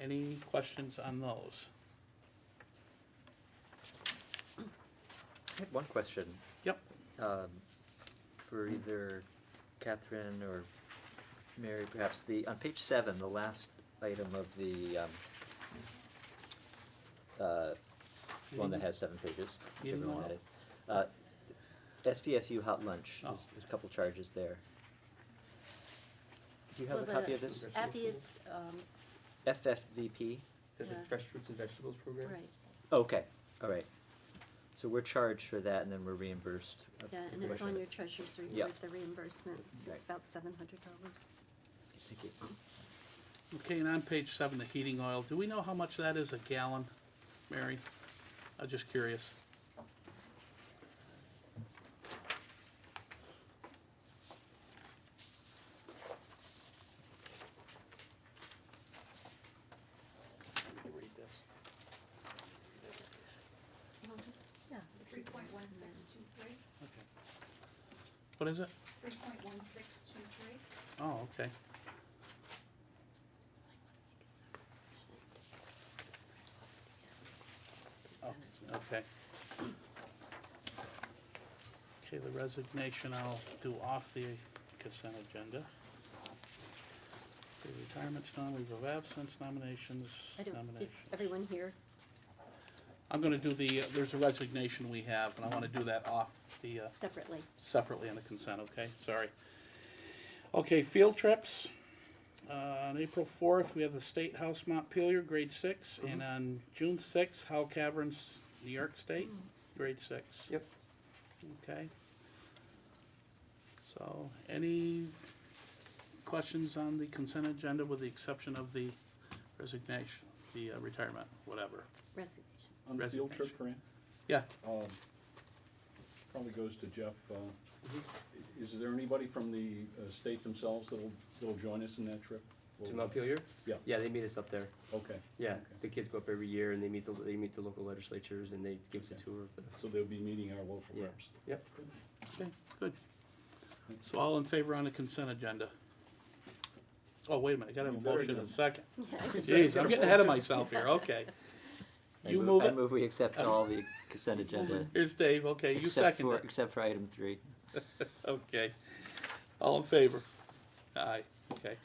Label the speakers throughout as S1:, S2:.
S1: Any questions on those?
S2: I had one question
S1: Yep,
S2: um, for either Catherine or Mary, perhaps. The, on page seven, the last item of the um, uh, one that has seven pages,
S1: Meeting
S2: whichever one that
S1: note?
S2: is. Uh, SDSU hot lunch,
S1: Oh.
S2: there's there's a couple charges there. Do you have a
S3: Well, the
S2: copy of this?
S3: app is, um,
S2: FFVP?
S4: There's
S3: Yeah.
S4: a fresh fruits and vegetables program.
S3: right,
S2: Okay, all right. So we're charged for that and then we're reimbursed. uh,
S3: yeah, and
S2: pretty
S3: it's
S2: much
S3: on
S2: it.
S3: your treasurer's
S2: Yeah.
S3: report, the reimbursement,
S2: Right.
S3: it's about seven hundred dollars.
S2: Thank you.
S1: okay, and on page seven, the heating oil, do we know how much that is a gallon, Mary? I'm just curious.
S3: Yeah.
S5: Three point one six two three.
S1: What is it?
S5: Three point one six two three.
S1: Oh, okay. Oh, okay. Okay, the resignation I'll do off the consent agenda. Okay, Retirements, non-leave of absence, nominations,
S2: Oh.
S3: I don't, did
S1: nominations.
S3: everyone hear?
S1: I'm gonna do the, uh, there's a resignation we have, and I wanna do that off the, uh,
S3: separately?
S1: separately on the consent, okay? Sorry. Okay, field trips. Uh, on April fourth, we have the State House Montpelier, grade six, and on June sixth, Howell Caverns, New York State, grade six.
S4: Yep.
S1: Okay. So, any questions on the consent agenda with the exception of the resignation, the uh, retirement, whatever?
S3: Resignation.
S6: On the field trip, Fran,
S1: Yeah,
S6: um, probably goes to Jeff, uh, i- is there anybody from the uh, state themselves that'll, that'll join us in that trip?
S4: To Montpelier?
S6: Yeah.
S4: Yeah, they meet us up there.
S6: Okay.
S4: Yeah,
S6: okay.
S4: the kids go up every year and they meet the, they meet the local legislatures and they give us a
S6: Okay.
S4: tour of the,
S6: So they'll be meeting our local
S4: yeah,
S6: reps.
S4: yep.
S1: Okay, good. So all in favor on the consent agenda? Oh, wait a minute, I gotta have a
S6: You better
S1: motion in
S6: do
S1: a
S6: it.
S1: second.
S3: Yeah,
S1: Jeez, I'm getting ahead of myself here, okay.
S2: I
S1: You move
S2: I
S1: it.
S2: move we accept all the consent agenda.
S1: Here's Dave, okay, you
S2: except
S1: second
S2: for-
S1: it,
S2: Except for item three.
S1: okay. All in favor? Aye, okay.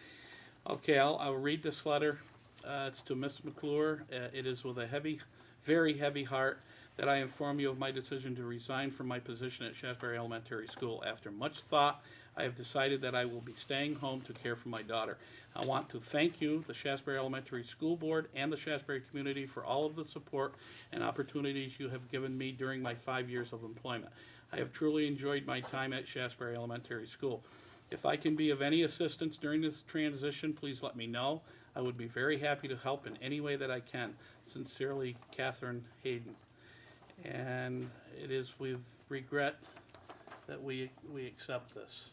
S1: Okay, I'll, I'll read this letter. Uh, it's to Miss McClure. Uh, it is with a heavy, very heavy heart that I inform you of my decision to resign from my position at Shasberry Elementary School. After much thought, I have decided that I will be staying home to care for my daughter. I want to thank you, the Shasberry Elementary School Board, and the Shasberry community for all of the support and opportunities you have given me during my five years of employment. I have truly enjoyed my time at Shasberry Elementary School. If I can be of any assistance during this transition, please let me know. I would be very happy to help in any way that I can. Sincerely, Catherine Hayden. And it is with regret that we, we accept this.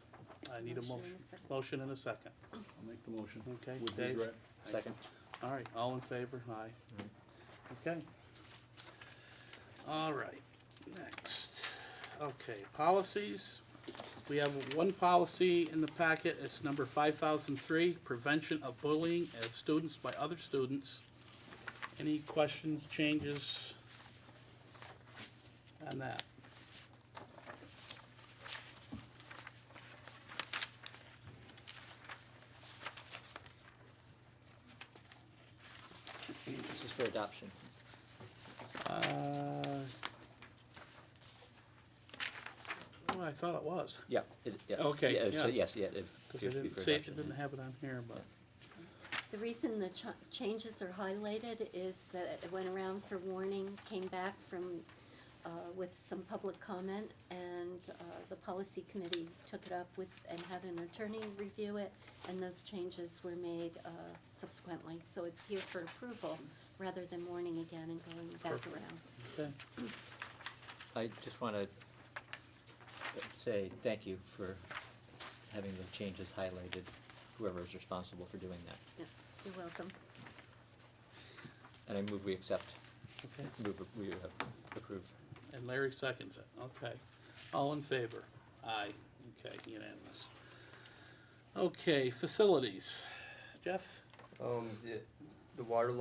S1: I need a
S3: Motion and
S1: motion,
S3: a second.
S1: motion and a second.
S6: I'll make the motion.
S1: Okay,
S6: With
S1: Dave?
S6: regret.
S2: Second.
S1: All right, all in favor? Aye. Okay. All right, next. Okay, policies. We have one policy in the packet. It's number five thousand three, prevention of bullying of students by other students. Any questions, changes on that?
S2: This is for adoption.
S1: Uh, well, I thought it was.
S2: Yeah. it- yeah.
S1: Okay,
S2: Yeah, so
S1: yeah.
S2: Yes, yeah, it
S1: 'Cause
S2: appears
S1: I
S2: to be
S1: didn't
S2: for
S1: see, it
S2: adoption.
S1: didn't have it on here, but,
S3: The reason the ch- changes are highlighted is that it went around for warning, came back from, uh, with some public comment, and, uh, the policy committee took it up with, and had an attorney review it, and those changes were made, uh, subsequently, so it's here for approval, rather than warning again and going back
S1: Perfect.
S3: around.
S1: okay.
S2: I just want to say thank you for having the changes highlighted, whoever is responsible for doing that.
S3: Yeah, You're welcome.
S2: And I move we accept,
S1: Okay,
S2: move we uh, approve.
S1: and Larry seconds it, okay. All in favor? Aye, okay, unanimous. Okay, facilities. Jeff?
S4: Um, the- the water